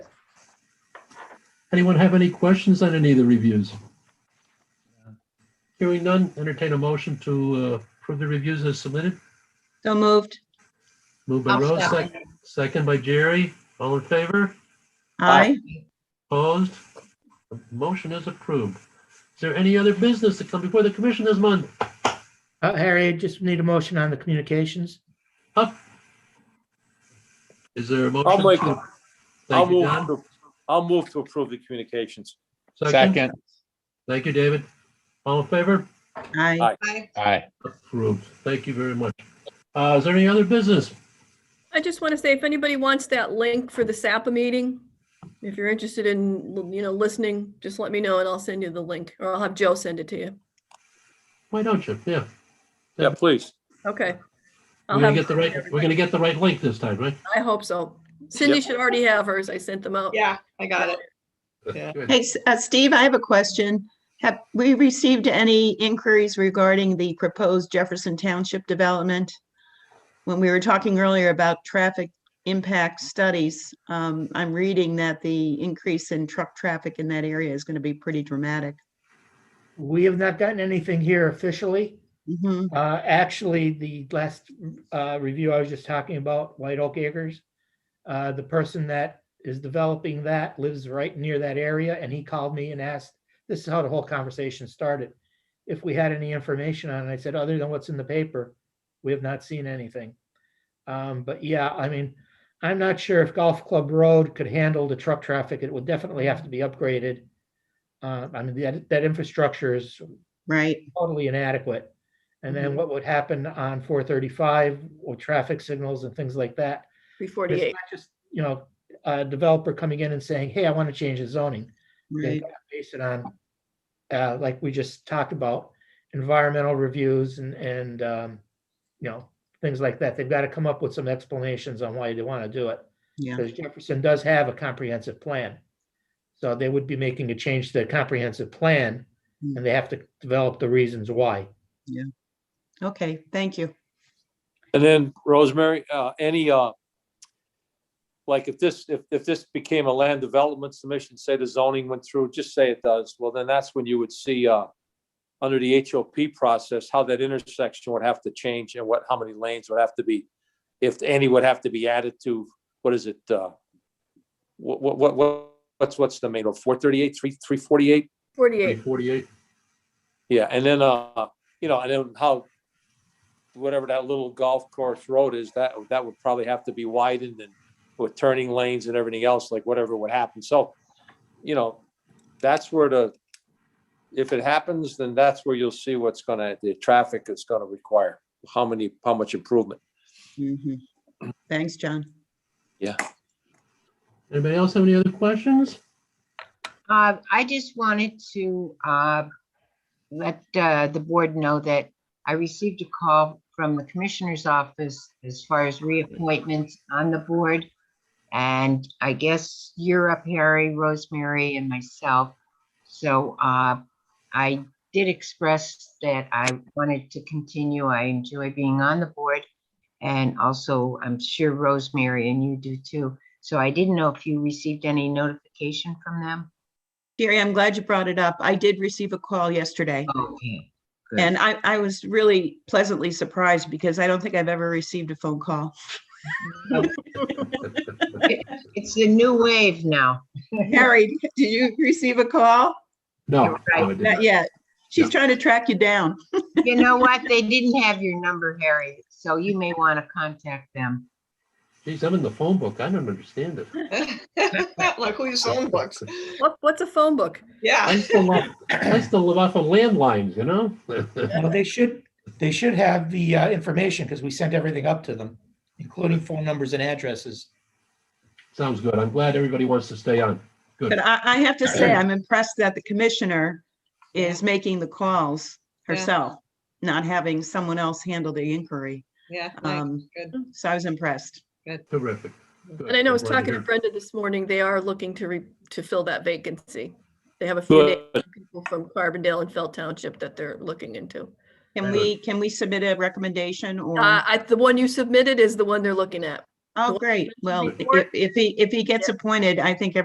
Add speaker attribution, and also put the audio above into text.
Speaker 1: Anyone have any questions on any of the reviews? Hearing none, entertain a motion to uh, approve the reviews as submitted.
Speaker 2: So moved.
Speaker 1: Moved by
Speaker 3: I'll
Speaker 1: Rose,
Speaker 3: second.
Speaker 1: sec- second by Jerry. All in favor?
Speaker 2: Aye.
Speaker 1: Opposed? The Motion is approved. Is there any other business to come before the commission this month?
Speaker 4: Uh, Harry, I just need a motion on the communications.
Speaker 1: Up? Is there a motion?
Speaker 5: I'll make
Speaker 1: to-
Speaker 5: it. I'll
Speaker 1: Thank you,
Speaker 5: move,
Speaker 1: Don.
Speaker 5: to- I'll move to approve the communications.
Speaker 1: Second.
Speaker 6: Second.
Speaker 1: Thank you, David. All in favor?
Speaker 2: Aye.
Speaker 3: Aye.
Speaker 6: Aye.
Speaker 1: Approved. Thank you very much. Uh, Is there any other business?
Speaker 7: I just want to say, if anybody wants that link for the SAPA meeting, if you're interested in, you know, listening, just let me know and I'll send you the link or I'll have Joe send it to you.
Speaker 1: Why don't you? Yeah.
Speaker 5: Yeah, please.
Speaker 7: Okay. I'll
Speaker 1: We're gonna
Speaker 7: have-
Speaker 1: get the right, we're gonna get the right link this time, right?
Speaker 7: I hope so. Cindy should already have hers. I sent them out.
Speaker 3: Yeah, I got it. Yeah.
Speaker 1: Good.
Speaker 2: Hey, S- uh, Steve, I have a question. Have we received any inquiries regarding the proposed Jefferson Township development? When we were talking earlier about traffic impact studies, um, I'm reading that the increase in truck traffic in that area is going to be pretty dramatic.
Speaker 4: We have not gotten anything here officially.
Speaker 2: Mhm.
Speaker 4: Uh, actually, the last, uh, review I was just talking about, White Oak Acres. Uh, the person that is developing that lives right near that area and he called me and asked, this is how the whole conversation started. If we had any information on it, I said, other than what's in the paper, we have not seen anything. Um, but yeah, I mean, I'm not sure if Golf Club Road could handle the truck traffic. It would definitely have to be upgraded. Uh, I mean, that, that infrastructure is
Speaker 2: Right,
Speaker 4: totally inadequate. And then
Speaker 2: Mhm.
Speaker 4: what would happen on four thirty-five with traffic signals and things like that?
Speaker 7: Three
Speaker 4: It's
Speaker 7: forty-eight.
Speaker 4: not just, you know, a developer coming in and saying, hey, I want to change the zoning. They
Speaker 2: right.
Speaker 4: gotta base it on, uh, like we just talked about, environmental reviews and, and, um, you know, things like that. They've got to come up with some explanations on why they want to do it.
Speaker 2: Yeah.
Speaker 4: Because Jefferson does have a comprehensive plan. So they would be making a change to the comprehensive plan
Speaker 2: Hmm.
Speaker 4: and they have to develop the reasons why.
Speaker 2: Okay, thank you.
Speaker 5: And then Rosemary, uh, any, uh, like if this, if, if this became a land development submission, say the zoning went through, just say it does, well, then that's when you would see, uh, under the HOP process, how that intersection would have to change and what, how many lanes would have to be, if any would have to be added to, what is it, uh, what, what, what- what, what's, what's the main, four thirty-eight, three, three forty-eight?
Speaker 1: Three
Speaker 7: Forty-eight.
Speaker 1: forty-eight.
Speaker 5: Yeah, and then, uh, you know, and then how, whatever that little golf course road is, that, that would probably have to be widened and with turning lanes and everything else, like whatever would happen. So, you know, that's where the, if it happens, then that's where you'll see what's gonna, the traffic is gonna require, how many, how much improvement.
Speaker 2: Mhm. Thanks, John.
Speaker 1: Anybody else have any other questions?
Speaker 3: Uh, I just wanted to, uh, let, uh, the board know that I received a call from the commissioner's office as far as reappointments on the board. And I guess you're up, Harry, Rosemary and myself. So, uh, I did express that I wanted to continue. I enjoy being on the board. And also, I'm sure Rosemary and you do too. So I didn't know if you received any notification from them.
Speaker 2: Jerry, I'm glad you brought it up. I did receive a call yesterday.
Speaker 3: Okay, Good.
Speaker 2: And I, I was really pleasantly surprised because I don't think I've ever received a phone call.
Speaker 3: it's the new wave now.
Speaker 2: Harry, did you receive a call?
Speaker 1: No. no, I did
Speaker 2: Not yet. She's trying to track you down.
Speaker 3: You know what? They didn't have your number, Harry, so you may want to contact them.
Speaker 1: Geez, I'm in the phone book. I don't understand it.
Speaker 8: Luckily, phone books.
Speaker 7: What, what's a phone book?
Speaker 8: Yeah.
Speaker 1: I still love, I still live off of landlines, you know?
Speaker 4: Well, they should, they should have the uh, information because we sent everything up to them, including phone numbers and addresses.
Speaker 1: Sounds good. I'm glad everybody wants to stay on.
Speaker 2: But I, I have to say, I'm impressed that the commissioner is making the calls
Speaker 8: Yeah.
Speaker 2: herself, not having someone else handle the inquiry.
Speaker 8: Yeah. nice,
Speaker 2: Um,
Speaker 8: Good.
Speaker 2: so I was impressed.
Speaker 1: Terrific. Good.
Speaker 7: And I know I was
Speaker 1: I'm glad
Speaker 7: talking to
Speaker 1: hear.
Speaker 7: Brenda this morning. They are looking to re, to fill that vacancy. They have a few
Speaker 5: Good.
Speaker 7: names of people from Carbondale and Felt Township that they're looking into.
Speaker 2: Can we, can we submit a recommendation or?
Speaker 7: Uh, I, the one you submitted is the one they're looking at.
Speaker 2: Oh, great. Well,
Speaker 7: before-
Speaker 2: if, if he, if he gets appointed, I think